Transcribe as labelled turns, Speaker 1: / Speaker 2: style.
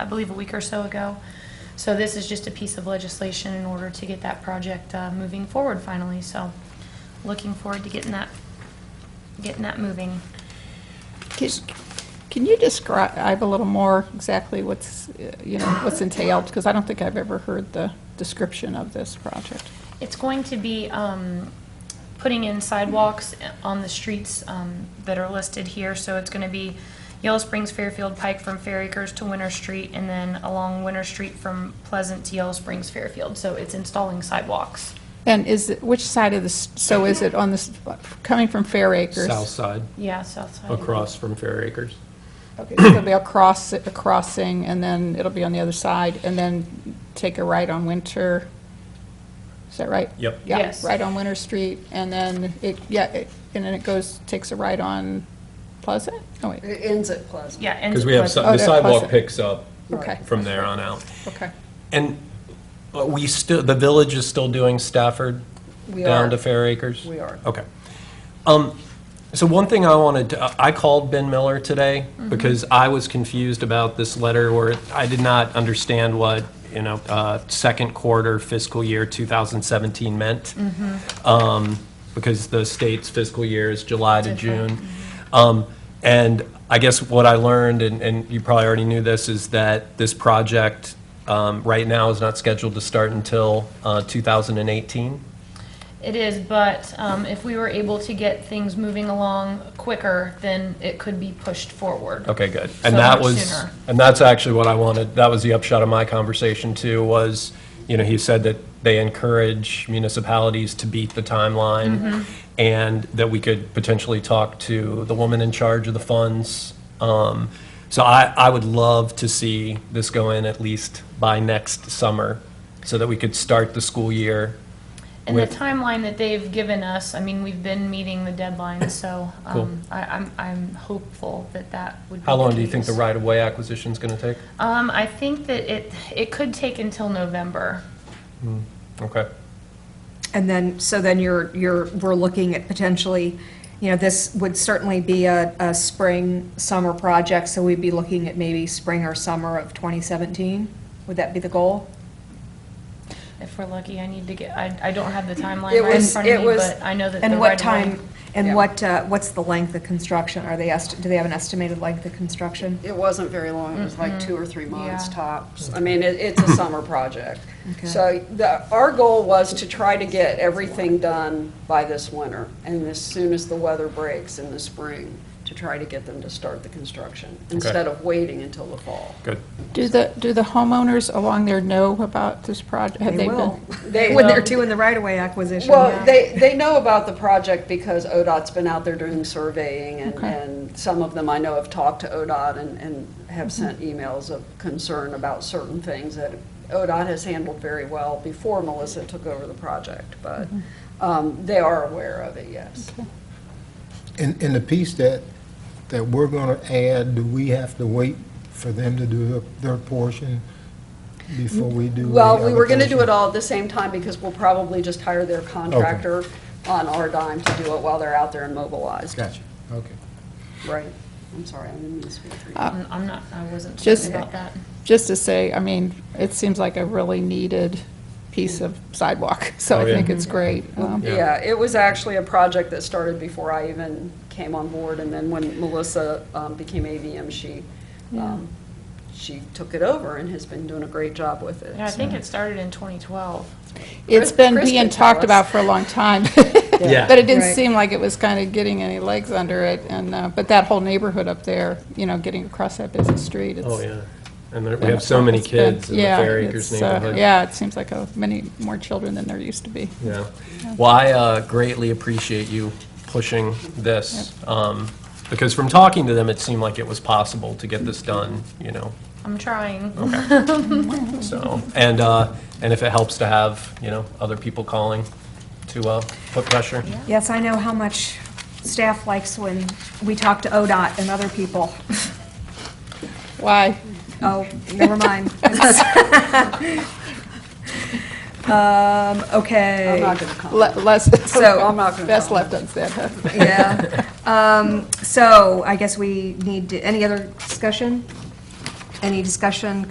Speaker 1: I believe, a week or so ago. So this is just a piece of legislation in order to get that project uh, moving forward finally. So looking forward to getting that, getting that moving.
Speaker 2: Can- Can you describe a little more exactly what's, uh, you know, what's entailed? Because I don't think I've ever heard the description of this project.
Speaker 1: It's going to be um, putting in sidewalks on the streets um, that are listed here. So it's going to be Yellow Springs, Fairfield Pike from Fair Acres to Winter Street, and then along Winter Street from Pleasant to Yellow Springs, Fairfield. So it's installing sidewalks.
Speaker 2: And is, it which side of this, so is it on this, coming from Fair Acres?
Speaker 3: South side,
Speaker 1: Yeah, south side.
Speaker 3: across from Fair Acres.
Speaker 2: Okay, so it'll be a cross, a crossing, and then it'll be on the other side, and then take a right on Winter. Is that right?
Speaker 3: Yep.
Speaker 2: Yeah,
Speaker 1: Yes.
Speaker 2: right on Winter Street, and then it, yeah, it- and then it goes, takes a right on Pleasant? Oh, wait,
Speaker 4: It ends at Pleasant.
Speaker 1: Yeah. ends
Speaker 3: Because
Speaker 1: at
Speaker 3: we have, si-
Speaker 1: Pleasant.
Speaker 2: Oh,
Speaker 3: the
Speaker 2: that
Speaker 3: sidewalk
Speaker 2: Pleasant.
Speaker 3: picks up
Speaker 2: okay,
Speaker 3: from there on out.
Speaker 2: okay.
Speaker 3: And uh, we still, the village is still doing Stafford
Speaker 4: We
Speaker 3: down
Speaker 4: are.
Speaker 3: to Fair Acres?
Speaker 4: We are.
Speaker 3: Okay. Um, So one thing I wanted, to I called Ben Miller today
Speaker 4: Mm-hmm.
Speaker 3: because I was confused about this letter where I did not understand what, you know, uh, second quarter fiscal year 2017 meant.
Speaker 4: Mm-hmm.
Speaker 3: Um, Because the state's fiscal year is July to June. Um, And I guess what I learned, and- and you probably already knew this, is that this project um, right now is not scheduled to start until uh, 2018.
Speaker 1: It is, but um, if we were able to get things moving along quicker, then it could be pushed forward.
Speaker 3: Okay, good.
Speaker 1: So
Speaker 3: And that
Speaker 1: much
Speaker 3: was,
Speaker 1: sooner.
Speaker 3: and that's actually what I wanted, that was the upshot of my conversation too, was, you know, he said that they encourage municipalities to beat the timeline
Speaker 2: Mm-hmm.
Speaker 3: and that we could potentially talk to the woman in charge of the funds. Um, So I, I would love to see this go in at least by next summer so that we could start the school year.
Speaker 1: And the
Speaker 3: with-
Speaker 1: timeline that they've given us, I mean, we've been meeting the deadline, so
Speaker 3: Cool.
Speaker 1: um, I- I'm I'm hopeful that that would be
Speaker 3: How long do you
Speaker 1: case.
Speaker 3: think the right-of-way acquisition's going to take?
Speaker 1: Um, I think that it, it could take until November.
Speaker 3: Okay.
Speaker 5: And then, so then you're, you're, we're looking at potentially, you know, this would certainly be a, a spring, summer project, so we'd be looking at maybe spring or summer of 2017? Would that be the goal?
Speaker 1: If we're lucky, I need to get, I I don't have the timeline
Speaker 4: It
Speaker 1: right in
Speaker 4: was-
Speaker 1: front of
Speaker 4: it
Speaker 1: me,
Speaker 4: was-
Speaker 1: but I know that the
Speaker 5: And what
Speaker 1: right-of-way-
Speaker 5: time, and
Speaker 4: Yeah.
Speaker 5: what, uh, what's the length of construction? Are they, est- do they have an estimated length of construction?
Speaker 4: It wasn't very long, it was like two or three months
Speaker 1: Mm-hmm. Yeah.
Speaker 4: tops. I mean, it, it's a summer project.
Speaker 5: Okay.
Speaker 4: So the, our goal was to try to get everything done by this winter, and as soon as the weather breaks in the spring, to try to get them to start the construction, instead of waiting until the fall.
Speaker 3: Good.
Speaker 2: Do the, do the homeowners along there know about this project? Have
Speaker 5: They
Speaker 2: been-
Speaker 5: will.
Speaker 4: They-
Speaker 5: When they're doing the right-of-way acquisition.
Speaker 4: Well, they, they know about the project because ODOT's been out there doing surveying, and,
Speaker 2: Okay.
Speaker 4: and some of them I know have talked to ODOT and, and have sent emails of concern about certain things that ODOT has handled very well before Melissa took over the project, but, um, they are aware of it, yes.
Speaker 6: In, in the piece that, that we're going to add, do we have to wait for them to do their portion before we do? the
Speaker 4: Well, we were gonna do it
Speaker 6: allocation?
Speaker 4: all at the same time because we'll probably just hire their contractor on our dime to do it while they're out there and mobilized.
Speaker 6: Gotcha, okay.
Speaker 4: Right, I'm sorry, I didn't mean to speak for you.
Speaker 1: I'm I'm not, I wasn't
Speaker 2: Just-
Speaker 1: certain about that.
Speaker 2: Just to say, I mean, it seems like a really needed piece of sidewalk, so
Speaker 3: Oh,
Speaker 2: I
Speaker 3: yeah.
Speaker 2: think it's great. Um,
Speaker 3: Yeah.
Speaker 4: Yeah, it was actually a project that started before I even came on board, and then when Melissa um, became AVM, she, um, she took it over and has been doing a great job with it.
Speaker 1: Yeah, I think it started in 2012.
Speaker 2: It's been
Speaker 4: Chris
Speaker 2: being
Speaker 4: could tell
Speaker 2: talked
Speaker 4: us.
Speaker 2: about for a long time,
Speaker 3: Yeah.
Speaker 2: but it didn't
Speaker 5: Right.
Speaker 2: seem like it was kind of getting any legs under it, and, uh, but that whole neighborhood up there, you know, getting across that busy street, it's...
Speaker 3: Oh, yeah. And there- we have so many
Speaker 2: it's been-
Speaker 3: kids in the
Speaker 2: yeah,
Speaker 3: Fair Acres
Speaker 2: it's, uh,
Speaker 3: neighborhood.
Speaker 2: Yeah, it seems like uh, many more children than there used to be.
Speaker 3: Yeah. Well, I uh, greatly appreciate you pushing this, um, because from talking to them, it seemed like it was possible to get this done, you know,
Speaker 1: I'm
Speaker 3: Oh,
Speaker 1: trying.
Speaker 3: so. And, uh, and if it helps to have, you know, other people calling to uh, put pressure.
Speaker 5: Yes, I know how much staff likes when we talk to ODOT and other people.
Speaker 2: Why?
Speaker 5: Oh, never mind. Um, okay.
Speaker 4: I'm not going to comment.
Speaker 2: Le- Less,
Speaker 5: So,
Speaker 4: I'm not gonna
Speaker 2: best
Speaker 4: comment.
Speaker 2: left unsaid, huh?
Speaker 5: Yeah. Um, So I guess we need, to- any other discussion? Any discussion,